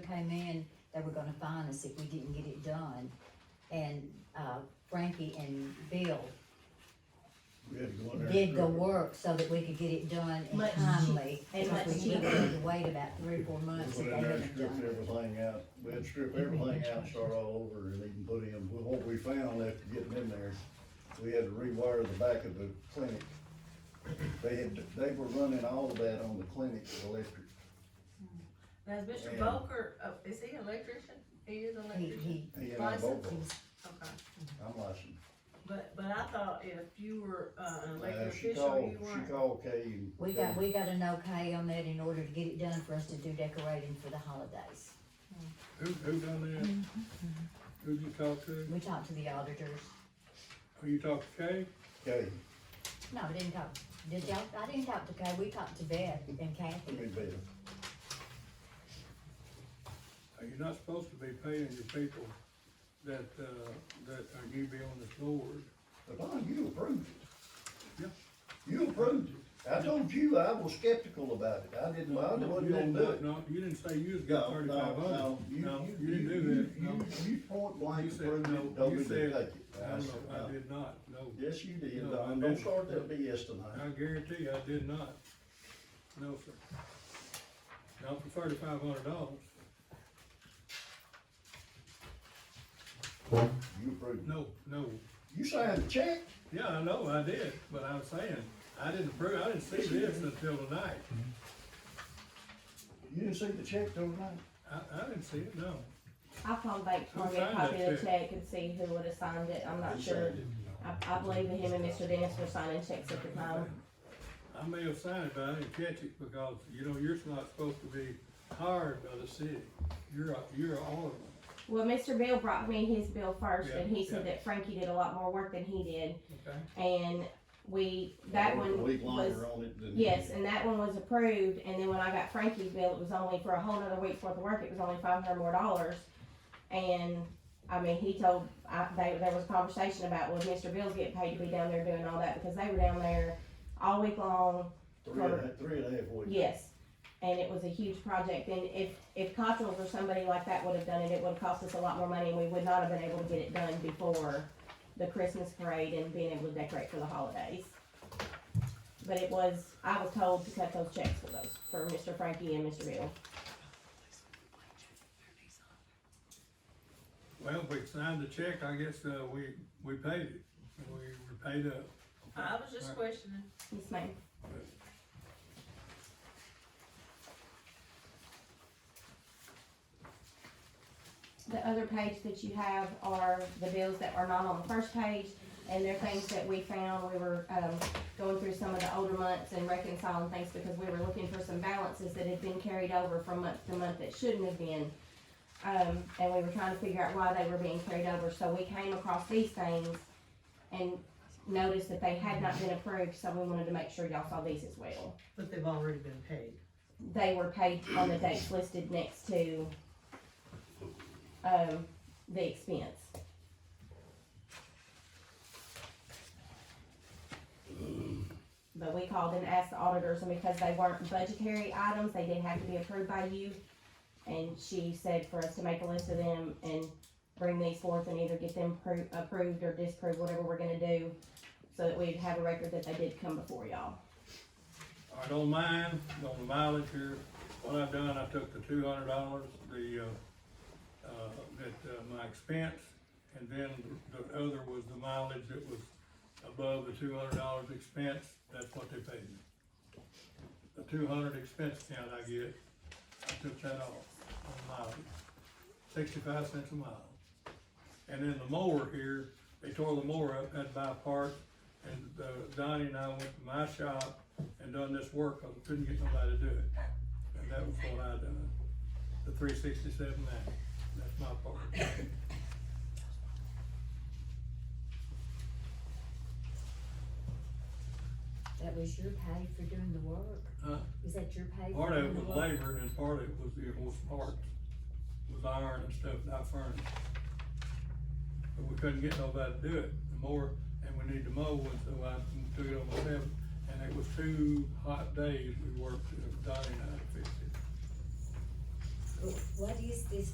came in, they were gonna fine us if we didn't get it done. And, uh, Frankie and Bill We had to go in there. and did the strip it. work so that we could get it done and Much timely. cheap- and Because much we would cheaper. have to wait about three, or four We months if went they in there and hadn't stripped done it. everything out, we had to strip everything out, and start all over, and even put in, what we found after getting in there, we had to rewire the back of the clinic. They had, they were running all of that on the clinic electric, Now, is Mr. Yeah. Boker, oh, is he an electrician? He is an He, electrician? he, he and I both, Licensed? were. Okay, I'm licensed. but, but I thought if you were, uh, an Uh, elected she official, called, you she weren't. called Kay and. we got, we got an okay on that in order to get it done for us to do decorating for the holidays. Who, who done that? Who'd you talk to? We talked to the auditors. Who you talked to Kay? Kay, No, I didn't talk, did y'all, I didn't talk to Kay, we talked to Beth and I Kathy. mean, Bill, Uh, You're not supposed to be paying your people that, uh, that are new be on this board. but Don, you approved it. Yeah. You approved it, I told you, I was skeptical about it, I didn't, I No, wasn't you gonna didn't- do it. No, you didn't say you was No, got no, thirty-five no, hundred. No, you didn't you- do that, you- no. You point blank You said, approved it, no, told you me to said, take it. I no, said, no, no. I did not, no. Yes, you did, No, I Don, don't didn't. start that BS I tonight. guarantee you, I did not. No, sir. Not for thirty-five hundred dollars. You approved it. No, no. You signed the check, Yeah, I know, I did, but I'm saying, I didn't approve, I didn't see this until tonight. you didn't see the check overnight. I, I didn't see it, no. I'll call back Who tomorrow, get a signed copy that of the check and see who would have signed it, I'm not sure. I, I believe that him and Mr. Dennis were signing checks at the time. I may have signed it, but I didn't catch it because, you know, you're not supposed to be hired by the city. You're a, you're a alderman. Well, Mr. Bill brought me his bill first, and he said Yeah, yeah. that Frankie did a lot more work than he did, okay? and we, that I worked a one week was. longer on it than. Yes, and that one was approved, and then when I got Frankie's bill, it was only for a whole nother week's worth of work, it was only five hundred more dollars. And, I mean, he told, I, they, there was a conversation about, well, Mr. Bill's getting paid to be down there doing all that, because they were down there all week long, Three and a, three and a half weeks. yes. And it was a huge project, and if, if Cottrell's or somebody like that would have done it, it would have cost us a lot more money, and we would not have been able to get it done before the Christmas parade and being able to decorate for the holidays. But it was, I was told to cut those checks for those, for Mr. Frankie and Mr. Bill. Well, we signed the check, I guess, uh, we, we paid it. We were paid up. I was just Right. questioning. Yes, ma'am. The other page that you have are the bills that are not on the first page, and they're things that we found, we were, um, going through some of the older months and reconciling things because we were looking for some balances that had been carried over from month to month that shouldn't have been. Um, and we were trying to figure out why they were being carried over, so we came across these things and noticed that they had not been approved, so we wanted to make sure y'all saw these as well. But they've already been paid. They were paid on the dates listed next to, um, the expense. But we called and asked the auditors, and because they weren't budgetary items, they didn't have to be approved by you. And she said for us to make a list of them and bring these forth and either get them pro- approved or disproved, whatever we're gonna do, so that we'd have a record that they did come before y'all. I don't mind, on the mileage here, what I've done, I took the two hundred dollars, the, uh, uh, that, uh, my expense, and then the other was the mileage that was above the two hundred dollars expense, that's what they paid me. The two hundred expense account I get, I took that off on mileage, sixty-five cents a mile. And then the mower here, they tore the mower up, had to buy parts, and uh, Donnie and I went to my shop and done this work, cause I couldn't get nobody to do it. And that was what I done, the three sixty-seven ninety, that's my part. That was your pay for doing the work? Huh? Is that your pay? for Part of doing it the was work? labor and part of it was the, was parts, was iron and stuff that I furnished. But we couldn't get nobody to do it, the more, and we need to mow, and so I took it on myself. And it was two hot days we worked, uh, Donnie and I fixed it. what is this